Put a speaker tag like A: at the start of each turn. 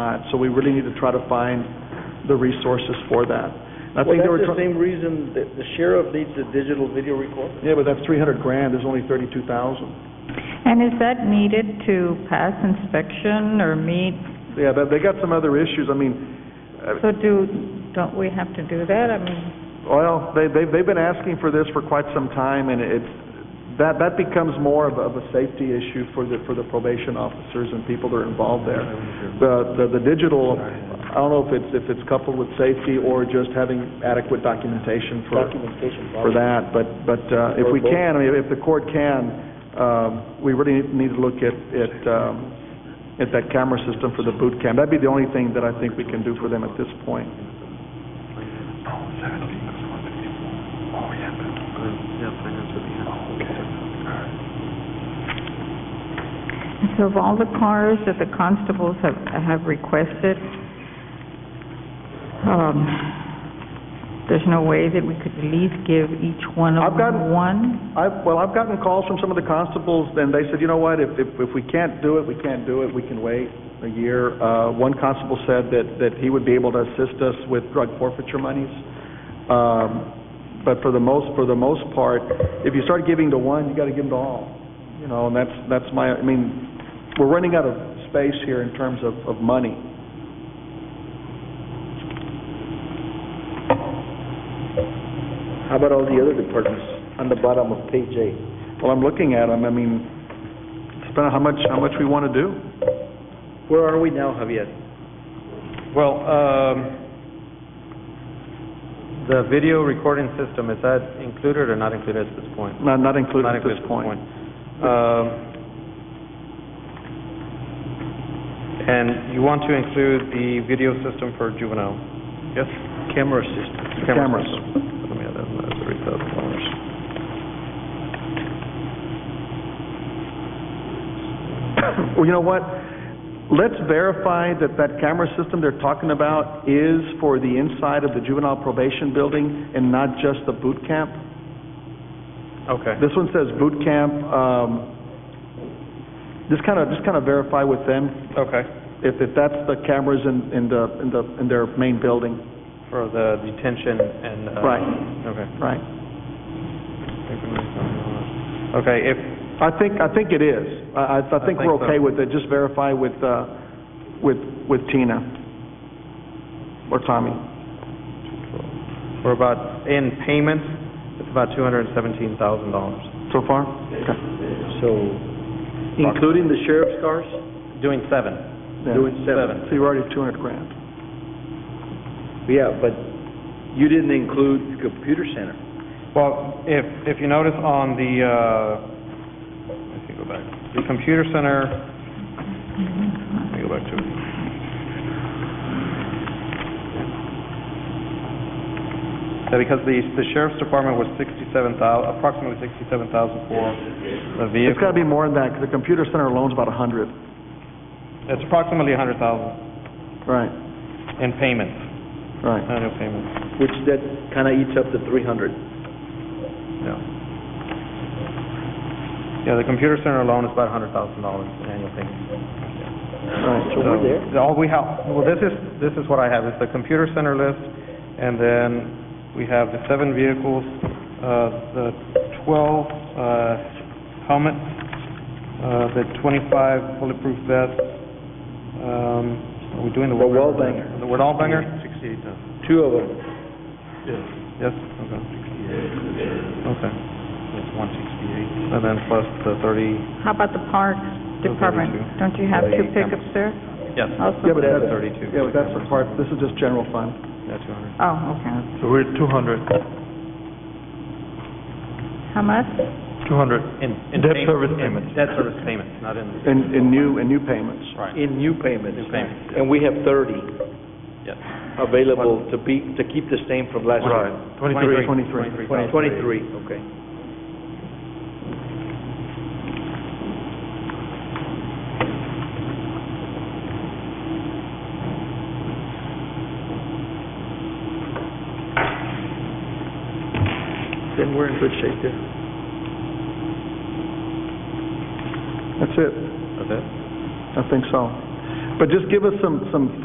A: not. So we really need to try to find the resources for that. And I
B: Well,
A: think they were
B: that's the
A: trying,
B: same reason that the sheriff needs a digital video recorder.
A: yeah, but that's three hundred grand, there's only thirty-two thousand.
C: And is that needed to pass inspection or meet,
A: Yeah, that, they got some other issues, I mean, uh,
C: so do, don't we have to do that? I mean,
A: Well, they, they've, they've been asking for this for quite some time, and it's, that, that becomes more of, a- of a safety issue for the, for the probation officers and people that are involved there. The, the, the digital, I don't know if it's, if it's coupled with safety or just having adequate documentation for,
B: Documentation.
A: for that, but, but, uh, if we can, I mean, if the court can, um, we really need to look at, at, um, at that camera system for the boot camp. That'd be the only thing that I think we can do for them at this point.
C: so of all the cars that the constables have, have requested, um, there's no way that we could at least give each one of
A: I've gotten-
C: them one?
A: I've, well, I've gotten calls from some of the constables, and they said, you know what, if, if, if we can't do it, we can't do it, we can wait a year. Uh, one constable said that, that he would be able to assist us with drug forfeiture monies. Um, but for the most, for the most part, if you start giving to one, you gotta give them to all. You know, and that's, that's my, I mean, we're running out of space here in terms of, of money.
B: How about all the other departments on the bottom of page eight?
A: Well, I'm looking at them, I mean, it's about how much, how much we wanna do.
B: Where are we now, Javier?
D: Well, um, the video recording system, is that included or not included at this point?
A: Not, not included
D: Not
A: at this point.
D: Um, And you want to include the video system for juvenile? Yes. Camera system.
A: Cameras.
D: Camera system. Let me add that, that's three thousand dollars.
A: Well, you know what? Let's verify that that camera system they're talking about is for the inside of the juvenile probation building and not just the boot camp.
D: Okay.
A: This one says boot camp. um, Just kind of, just kind of verify with them
D: Okay,
A: if, if that's the cameras in, in the, in the, in their main building.
D: for the detention and, uh...
A: Right.
D: Okay.
A: Right.
D: Okay, if,
A: I think, I think it is. I, I I think we're
D: think so.
A: okay with it. Just verify with, uh, with, with Tina or Tommy.
D: we're about, in payments, it's about two hundred and seventeen thousand dollars.
A: So far? Okay.
B: So, including the sheriff's cars?
D: Doing seven.
A: Yeah.
B: Doing seven.
A: So you're already at 200 grand.
B: Yeah, but you didn't include the computer center.
D: Well, if, if you notice on the, uh, let me go back, the computer center, let me go back to it. So because the, the sheriff's department was sixty-seven thou, approximately sixty-seven thousand for the
A: It's got
D: vehicle.
A: to be more than that, 'cause the computer center alone's about 100.
D: It's approximately a hundred thousand
A: Right,
D: in payments,
A: right.
D: annual payments,
B: Which that kind of eats up the three hundred.
D: yeah. Yeah, the computer center alone is about a hundred thousand dollars in annual payments.
A: Right.
D: Uh,
B: So we're there.
D: So, All we have, well, this is, this is what I have, is the computer center list, and then we have the seven vehicles, uh, the twelve, uh, helmets, uh, the twenty-five bulletproof vests, um, are we doing the?
B: The
D: Word-
B: Wallbanger.
D: The Wallbanger?
B: Two of them.
D: Yes, okay. Okay. That's one sixty-eight. And then plus the thirty,
C: How about the parks department?
D: Thirty-two.
C: Don't you have two
D: Thirty-eight
C: pickups there
D: yes,
C: also?
A: Yeah, but
D: that's
A: that's-
D: thirty-two.
A: Yeah, but that's the part, this is just general fund.
D: Yeah, two hundred.
C: Oh, okay.
D: So we're at two hundred.
C: How much?
D: Two hundred. In, in.
E: Debt
D: pay-
E: service
D: in
E: payments.
D: Debt service payments, not in.
A: In, in new, in new payments.
D: Right.
B: In new payments.
D: New payments.
B: And we have thirty
D: Yes.
B: available to be, to keep the same from last year.
A: Twenty-three.
B: Twenty-
D: Twenty-three thousand.
B: Twenty-three, okay.
A: Then we're in good shape there. That's it.
D: That's it?
A: I think so. But just give us some, some